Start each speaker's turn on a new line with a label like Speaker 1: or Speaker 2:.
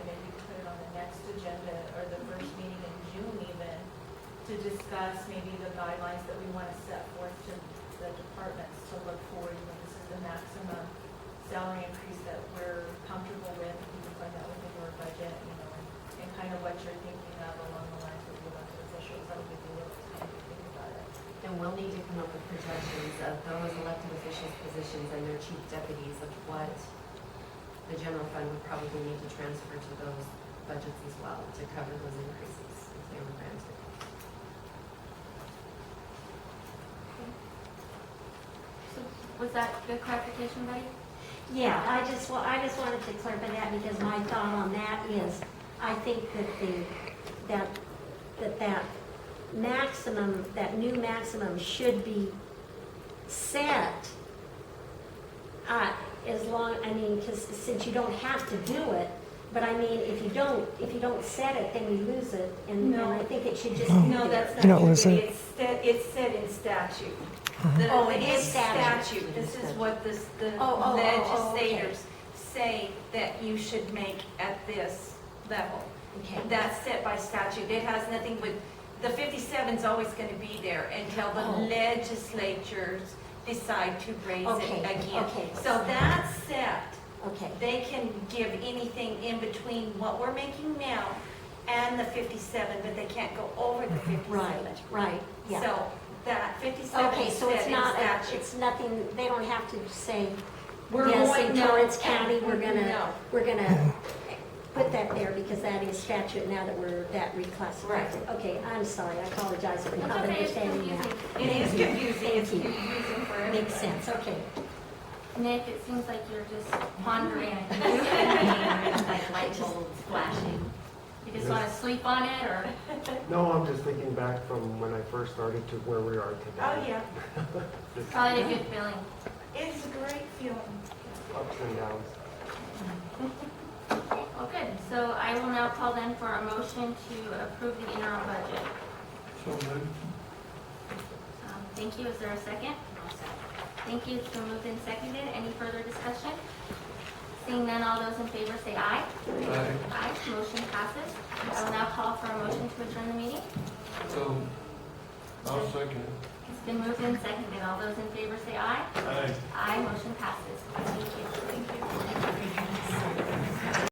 Speaker 1: to discuss maybe the guidelines that we want to set forth to the departments to look for. You know, this is the maximum salary increase that we're comfortable with, if you can find that within your budget, you know, and- and kind of what you're thinking of along the lines of the elected officials, that would give you a little time to think about it.
Speaker 2: And we'll need to come up with projections of those elected officials' positions and their chief deputies of what the general fund would probably need to transfer to those budgets as well to cover those increases if they were granted.
Speaker 3: So Was that good clarification, buddy?
Speaker 4: Yeah, I just, well, I just wanted to clarify that because my thought on that is, I think that the, that, that that maximum, that new maximum should be set. Uh, as long, I mean, because, since you don't have to do it, but I mean, if you don't, if you don't set it, then you lose it. And, and I
Speaker 1: No.
Speaker 4: think it should just be
Speaker 1: No,
Speaker 4: there.
Speaker 1: that's
Speaker 5: You know,
Speaker 1: not true,
Speaker 5: listen.
Speaker 1: Judy. It's sta- it's said in statute.
Speaker 5: Uh-huh.
Speaker 1: The-
Speaker 4: Oh, it is
Speaker 1: it's
Speaker 4: statute.
Speaker 1: statute. This is
Speaker 2: Statute.
Speaker 1: what this- the
Speaker 4: Oh, oh, oh, oh, okay.
Speaker 1: legislators say that you should make at this level.
Speaker 4: Okay.
Speaker 1: That's set by statute. It has nothing with, the 57's always going to be there until the
Speaker 4: Oh.
Speaker 1: legislatures decide to raise it
Speaker 4: Okay,
Speaker 1: again.
Speaker 4: okay.
Speaker 1: So that's set.
Speaker 4: Okay,
Speaker 1: They can give anything in between what we're making now and the 57, but they can't go over the 57.
Speaker 4: right, right, yeah.
Speaker 1: So that 57
Speaker 4: Okay,
Speaker 1: is
Speaker 4: so it's
Speaker 1: set in
Speaker 4: not, a-
Speaker 1: statute.
Speaker 4: it's nothing, they don't have to say,
Speaker 1: We're
Speaker 4: yes,
Speaker 1: going-
Speaker 4: in
Speaker 1: no.
Speaker 4: Torrance County, we're gonna,
Speaker 1: No.
Speaker 4: we're gonna put that there because that is statute now that we're, that reclassified.
Speaker 1: Right.
Speaker 4: Okay, I'm sorry, I apologize for not
Speaker 3: That's okay, it's
Speaker 4: understanding
Speaker 3: confusing.
Speaker 4: that.
Speaker 1: It is confusing, it's
Speaker 4: Thank you.
Speaker 1: confusing for everybody.
Speaker 4: Makes sense, okay.
Speaker 3: Nick, it seems like you're just pondering.
Speaker 2: Like light bulbs
Speaker 3: flashing. You just want to sleep on it, or?
Speaker 6: No, I'm just thinking back from when I first started to where we are
Speaker 1: Oh,
Speaker 6: today.
Speaker 1: yeah,
Speaker 6: Just
Speaker 3: Probably a good feeling.
Speaker 1: it's a great feeling.
Speaker 6: ups and downs.
Speaker 3: Well, good. So I will now call then for a motion to approve the interim budget. Um, Thank you. Is there a second? Thank you. It's been moved and seconded. Any further discussion? Seeing none, all those in favor say aye. Aye. Motion passes. I will now call for a motion to adjourn the meeting.
Speaker 7: So, I'll second.
Speaker 3: It's been moved and seconded. All those in favor say aye.
Speaker 7: Aye.
Speaker 3: Aye. Motion passes. Thank you. Thank you.